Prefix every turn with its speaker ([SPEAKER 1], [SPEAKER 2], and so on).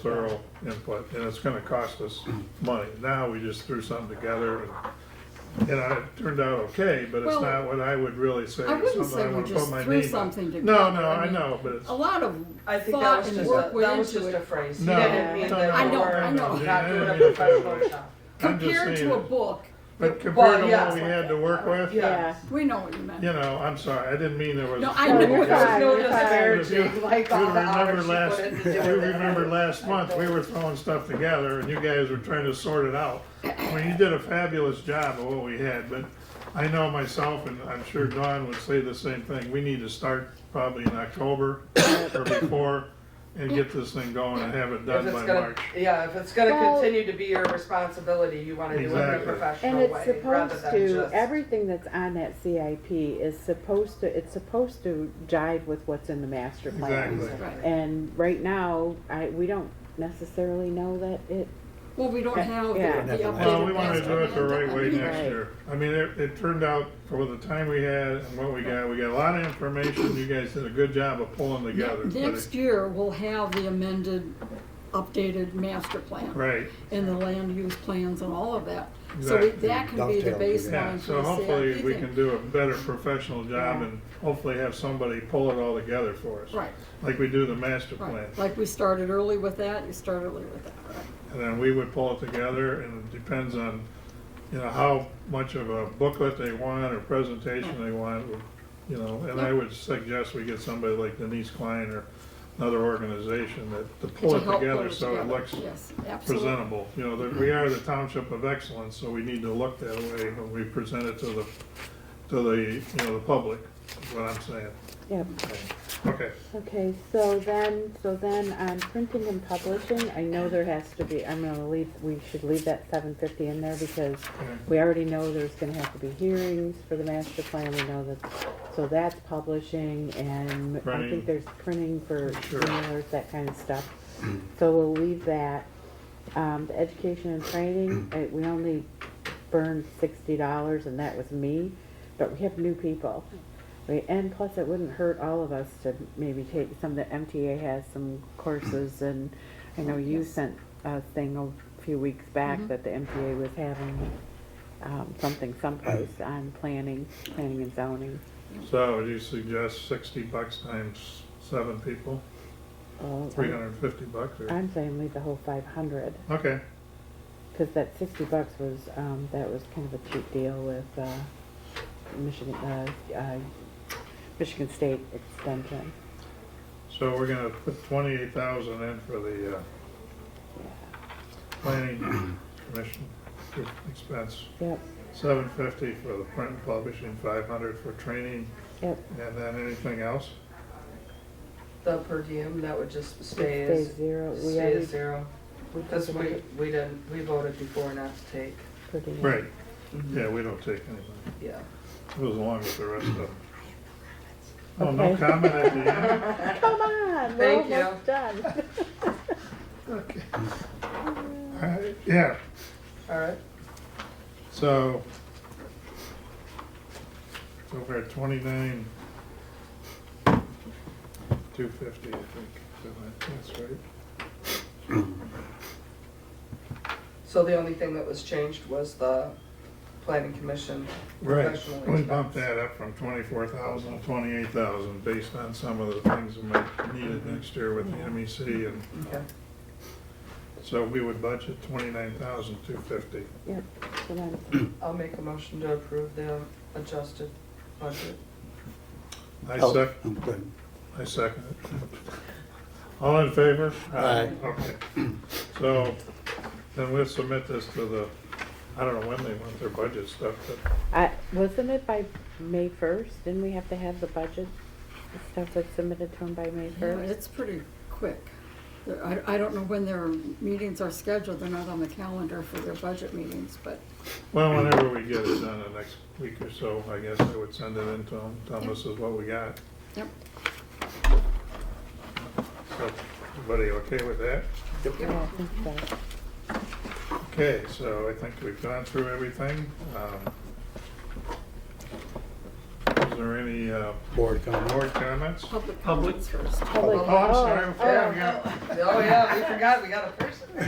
[SPEAKER 1] thorough input, and it's gonna cost us money. Now, we just threw something together, and, and I- it turned out okay, but it's
[SPEAKER 2] Well,
[SPEAKER 1] not what I would really say, is
[SPEAKER 2] I wouldn't
[SPEAKER 1] something
[SPEAKER 2] say
[SPEAKER 1] I
[SPEAKER 2] we
[SPEAKER 1] wanna put
[SPEAKER 2] just
[SPEAKER 1] my name on.
[SPEAKER 2] threw something
[SPEAKER 1] No,
[SPEAKER 2] together.
[SPEAKER 1] no,
[SPEAKER 2] I
[SPEAKER 1] I
[SPEAKER 2] mean,
[SPEAKER 1] know, but it's,
[SPEAKER 2] a lot of
[SPEAKER 3] I think that
[SPEAKER 2] thought
[SPEAKER 3] was
[SPEAKER 2] and
[SPEAKER 3] just
[SPEAKER 2] work
[SPEAKER 3] a, that
[SPEAKER 2] went
[SPEAKER 3] was just
[SPEAKER 2] into
[SPEAKER 3] a
[SPEAKER 2] it.
[SPEAKER 3] phrase.
[SPEAKER 1] No,
[SPEAKER 3] He didn't mean
[SPEAKER 1] no,
[SPEAKER 3] that
[SPEAKER 1] no,
[SPEAKER 3] you
[SPEAKER 1] no,
[SPEAKER 3] were
[SPEAKER 1] I know, I know.
[SPEAKER 3] not doing
[SPEAKER 1] I
[SPEAKER 3] a
[SPEAKER 1] know.
[SPEAKER 3] professional job.
[SPEAKER 1] I'm just
[SPEAKER 2] Compared to a
[SPEAKER 1] saying,
[SPEAKER 2] book,
[SPEAKER 1] but compared to
[SPEAKER 3] yeah,
[SPEAKER 1] what we
[SPEAKER 3] it's like
[SPEAKER 1] had to
[SPEAKER 3] that.
[SPEAKER 1] work with, you
[SPEAKER 3] Yeah.
[SPEAKER 2] we know what you meant.
[SPEAKER 1] know, I'm sorry, I didn't mean there was.
[SPEAKER 2] No, I
[SPEAKER 1] there
[SPEAKER 2] know.
[SPEAKER 1] was-
[SPEAKER 2] You're fine.
[SPEAKER 3] No
[SPEAKER 4] You're fine.
[SPEAKER 3] disparaging, like
[SPEAKER 1] You
[SPEAKER 3] all the
[SPEAKER 1] remember
[SPEAKER 3] hours she
[SPEAKER 1] last,
[SPEAKER 3] put into
[SPEAKER 1] you
[SPEAKER 3] doing that.
[SPEAKER 1] remember last month, we were throwing stuff together and you guys were trying to sort it out. I mean, you did a fabulous job of what we had, but I know myself and I'm sure Dawn would say the same thing. We need to start probably in October or before and get this thing going and have it
[SPEAKER 3] If
[SPEAKER 1] done
[SPEAKER 3] it's
[SPEAKER 1] by
[SPEAKER 3] gonna,
[SPEAKER 1] March.
[SPEAKER 3] yeah, if it's gonna
[SPEAKER 4] Well-
[SPEAKER 3] continue to be your responsibility, you wanna do it in a
[SPEAKER 1] Exactly.
[SPEAKER 4] And
[SPEAKER 3] professional
[SPEAKER 4] it's
[SPEAKER 3] way, rather
[SPEAKER 4] supposed
[SPEAKER 3] than
[SPEAKER 4] to,
[SPEAKER 3] just.
[SPEAKER 4] everything that's on that CIP is supposed to, it's supposed to jive with what's in the master plan.
[SPEAKER 1] Exactly.
[SPEAKER 2] Right.
[SPEAKER 4] And right now, I, we don't necessarily know that it,
[SPEAKER 2] Well, we don't have the
[SPEAKER 4] Yeah.
[SPEAKER 2] the updated.
[SPEAKER 1] Well, we wanna
[SPEAKER 2] master
[SPEAKER 1] do it the
[SPEAKER 2] plan.
[SPEAKER 1] right way next
[SPEAKER 4] Right.
[SPEAKER 1] year. I mean, it, it turned out for the time we had and what we got, we got a lot of information. You guys did a good job of pulling together. but it-
[SPEAKER 2] Next year, we'll have the amended, updated master plan
[SPEAKER 1] Right.
[SPEAKER 2] and the land use plans and all of that. So we-
[SPEAKER 1] Exactly.
[SPEAKER 2] that can be the
[SPEAKER 5] Dovetail to that.
[SPEAKER 1] Yeah,
[SPEAKER 2] baseline for
[SPEAKER 1] so
[SPEAKER 2] the
[SPEAKER 1] hopefully
[SPEAKER 2] CIP
[SPEAKER 1] we
[SPEAKER 2] thing.
[SPEAKER 1] can do a better professional job
[SPEAKER 4] Yeah.
[SPEAKER 1] and hopefully have somebody pull it all together for us.
[SPEAKER 2] Right,
[SPEAKER 1] Like we do the master plan.
[SPEAKER 2] right. Like we started early with that, you start early with that, right?
[SPEAKER 1] And then we would pull it together and it depends on, you know, how much of a booklet they want or presentation they want, you know, and I would suggest we get somebody like Denise Klein or another organization that, to pull
[SPEAKER 2] To
[SPEAKER 1] it
[SPEAKER 2] help pull
[SPEAKER 1] together so it
[SPEAKER 2] together.
[SPEAKER 1] looks
[SPEAKER 2] Yes, absolutely.
[SPEAKER 1] presentable. You know, that we are the township of excellence, so we need to look that way when we present it to the, to the, you know, the public, is what I'm saying.
[SPEAKER 4] yep.
[SPEAKER 1] Okay,
[SPEAKER 4] Okay, so then, so then on printing and publishing, I know there has to be, I'm gonna leave, we should leave that seven fifty in there because
[SPEAKER 1] Okay.
[SPEAKER 4] we already know there's gonna have to be hearings for the master plan, we know that, so that's publishing and I
[SPEAKER 1] Printing.
[SPEAKER 4] think there's printing for
[SPEAKER 1] Sure.
[SPEAKER 4] mailers, that kind of stuff. So we'll leave that. Um, the education and training, uh, we only burned sixty dollars and that was me, but we have new people. We, and plus, it wouldn't hurt all of us to maybe take some, the MTA has some courses, and I know you sent a thing a few weeks back that the MTA was having um, something someplace on planning, planning and zoning.
[SPEAKER 1] so would you suggest sixty bucks times seven people,
[SPEAKER 4] Well,
[SPEAKER 1] three hundred and fifty bucks or,
[SPEAKER 4] I'm saying leave the whole five hundred,
[SPEAKER 1] okay,
[SPEAKER 4] because that sixty bucks was, um, that was kind of a cheap deal with, uh, Michigan, uh, uh, Michigan State Extension.
[SPEAKER 1] so we're gonna put twenty-eight thousand in for the, uh, planning commission expense,
[SPEAKER 4] Yep,
[SPEAKER 1] seven fifty for the print and publishing, five hundred for training,
[SPEAKER 4] yep,
[SPEAKER 1] and then anything else?
[SPEAKER 3] The per diem, that would just stay
[SPEAKER 4] stay
[SPEAKER 3] as,
[SPEAKER 4] zero, we
[SPEAKER 3] stay
[SPEAKER 4] already.
[SPEAKER 3] as zero, cause we, we didn't, we voted before not to take,
[SPEAKER 4] pretty much-
[SPEAKER 1] Right, yeah, we don't take any money.
[SPEAKER 3] yeah.
[SPEAKER 1] Goes along with the rest of them. Oh, no
[SPEAKER 4] Okay.
[SPEAKER 1] comment at the end?
[SPEAKER 4] Come on, we're
[SPEAKER 3] Thank you.
[SPEAKER 4] almost done.
[SPEAKER 1] Okay. All right, yeah,
[SPEAKER 3] Alright,
[SPEAKER 1] so. So we're at twenty-nine. Two fifty, I think, so that- that's right.
[SPEAKER 3] so the only thing that was changed was the planning commission professional
[SPEAKER 1] Right, we bumped
[SPEAKER 3] expense.
[SPEAKER 1] that up from twenty-four thousand to twenty-eight thousand, based on some of the things that might be needed next year with the MEC, and
[SPEAKER 3] Okay,
[SPEAKER 1] so we would budget twenty-nine thousand, two fifty.
[SPEAKER 4] Yep, so then,
[SPEAKER 3] I'll make a motion to approve the adjusted budget.
[SPEAKER 1] I
[SPEAKER 5] Oh,
[SPEAKER 1] sec,
[SPEAKER 5] I'm good.
[SPEAKER 1] I second it. All in favor?
[SPEAKER 5] Aye.
[SPEAKER 1] Okay. So, then we'll submit this to the, I don't know when they want their budget stuff, but
[SPEAKER 4] I, wasn't it by May first, didn't we have to have the budget stuff that's submitted to them by May
[SPEAKER 2] Yeah,
[SPEAKER 4] first?
[SPEAKER 2] It's pretty quick. There- I, I don't know when their meetings are scheduled, they're not on the calendar for their budget meetings, but
[SPEAKER 1] Well, whenever we get it done, the next week or so, I guess I would send it in to them, tell them this is what we got.
[SPEAKER 2] Yep.
[SPEAKER 1] So, Everybody okay with that?
[SPEAKER 4] Yeah, Oh, I think so.
[SPEAKER 1] Okay, so I think we've gone through everything. Um, Is there any uh,
[SPEAKER 5] board comment.
[SPEAKER 1] board comments?
[SPEAKER 2] Public comments first.
[SPEAKER 1] Oh, I'm sorry, I forgot, we got-
[SPEAKER 3] Oh, yeah, we forgot, we got a person.